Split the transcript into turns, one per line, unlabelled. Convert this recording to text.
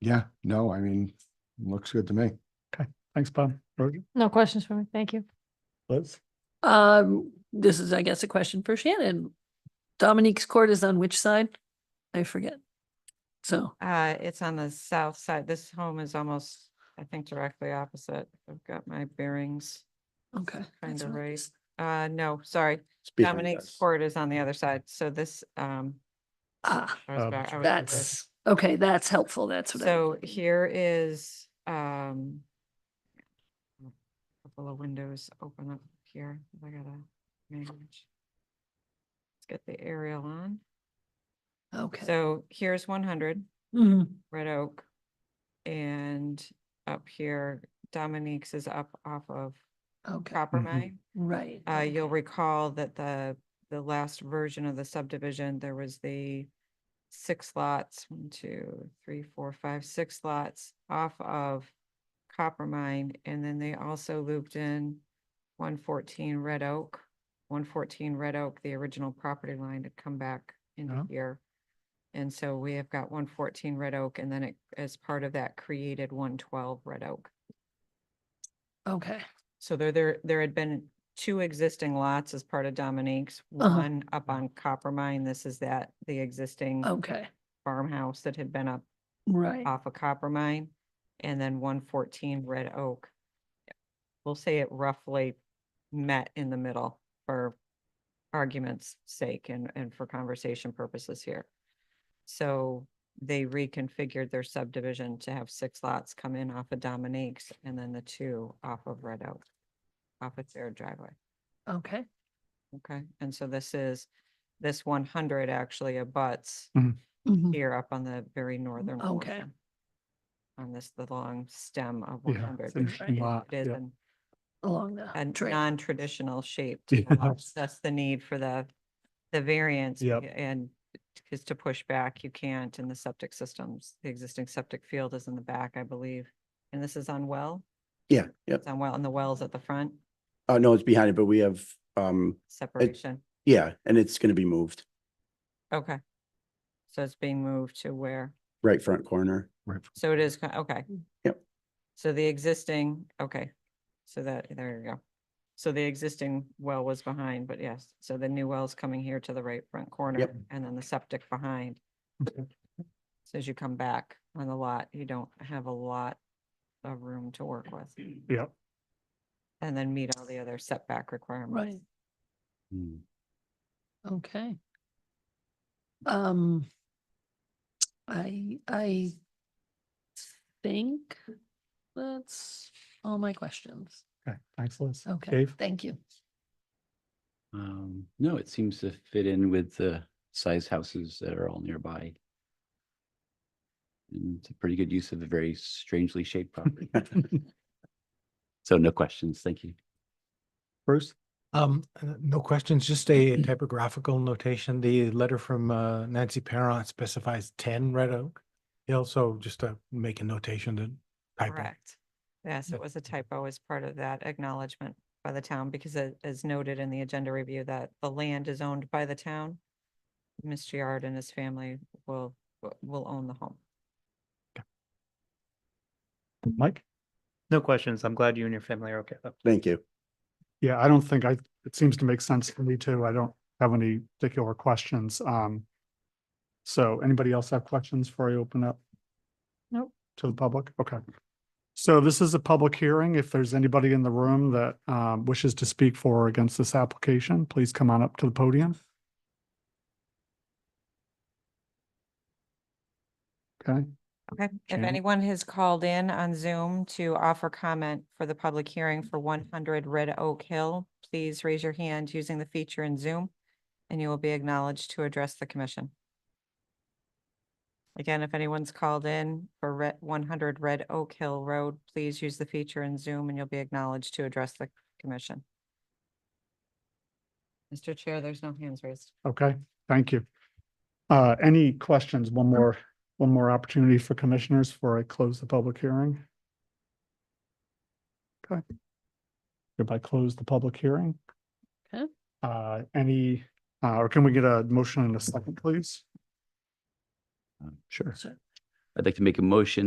Yeah, no, I mean, looks good to me.
Thanks, Bob. Roger?
No questions for me. Thank you.
Liz?
Um, this is, I guess, a question for Shannon. Dominique's Court is on which side? I forget. So,
Uh, it's on the south side. This home is almost, I think, directly opposite. I've got my bearings.
okay. that's
Kinda
what it
right.
is.
Uh, no, sorry.
It's behind
Dominique's
us.
court is on the other side. So this, um.
Ah,
I was
Oh,
back- I was reversed.
that's, okay, that's helpful. That's what I.
So here is, um. Couple of windows open up here. I gotta manage. Let's get the aerial on.
Okay.
So here's one hundred.
Mhm.
Red Oak. And up here, Dominique's is up off of
Okay,
Copper
Mhm.
Mine.
right.
Uh,
okay.
you'll recall that the, the last version of the subdivision, there was the six lots, one, two, three, four, five, six lots off of Copper Mine, and then they also looped in one fourteen Red Oak. One fourteen Red Oak, the original property line had come back
Yeah.
into here. And so we have got one fourteen Red Oak, and then it, as part of that, created one twelve Red Oak.
Okay,
So there, there, there had been two existing lots as part of Dominique's,
Uh-huh.
one up on Copper Mine. This is that, the existing
okay,
farmhouse that had been up
right.
off of Copper Mine. And then one fourteen Red Oak. We'll say it roughly met in the middle for argument's sake and, and for conversation purposes here. So they reconfigured their subdivision to have six lots come in off of Dominique's and then the two off of Red Oak. Off of their driveway.
Okay,
Okay, and so this is, this one hundred actually abuts
Mm.
mhm,
here up on the very northern
Okay.
portion. On this, the long stem of one
Yeah. it's
hundred.
an interesting lot,
It is
yeah.
an-
along
a
the trail.
non-traditional shape.
Yeah.
to the lot. That's the need for the, the variance.
Yep.
And is to push back, you can't in the septic systems. The existing septic field is in the back, I believe. And this is on well,
Yeah, yep.
it's on well, and the well's at the front,
Uh, no, it's behind it, but we have, um,
separation.
yeah, and it's gonna be moved,
Okay. So it's being moved to where?
right front corner.
Right.
So it is, ki- okay.
Yep.
So the existing, okay, so that, there you go. So the existing well was behind, but yes, so the new well's coming here to the right front corner
Yep.
and then the septic behind. So as you come back on the lot, you don't have a lot of room to work with
Yeah.
and then meet all the other setback requirements.
Right,
Hmm.
okay. Um, I, I think that's all my questions.
Okay, thanks, Liz.
Okay,
Dave?
thank you.
Um, no, it seems to fit in with the size houses that are all nearby. And it's a pretty good use of a very strangely shaped property. So no questions. Thank you.
Bruce?
Um, uh, no questions, just a typographical notation. The letter from uh, Nancy Parent specifies ten Red Oak. He Also, just to make a notation to typo.
Correct. Yes, it
Yep.
was a typo as part of that acknowledgement by the town because a- as noted in the agenda review that the land is owned by the town. Mr. Yard and his family will, w- will own the home.
Mike?
No questions. I'm glad you and your family are okay though.
Thank you.
Yeah, I don't think I, it seems to make sense to me too. I don't have any particular questions. Um, so anybody else have questions before I open up? Nope. To the public? Okay. So this is a public hearing. If there's anybody in the room that, um, wishes to speak for or against this application, please come on up to the podium. Okay,
Okay, if
Shannon?
anyone has called in on Zoom to offer comment for the public hearing for one hundred Red Oak Hill, please raise your hand using the feature in Zoom and you will be acknowledged to address the commission. Again, if anyone's called in for Red, one hundred Red Oak Hill Road, please use the feature in Zoom and you'll be acknowledged to address the commission. Mr. Chair, there's no hands raised.
okay, thank you. Uh, any questions? One more, one more opportunity for commissioners before I close the public hearing. Okay. Hereby close the public hearing.
Okay.
Uh, any, uh, or can we get a motion in a second, please?
Um, Sure.
Sure.
I'd like to make a motion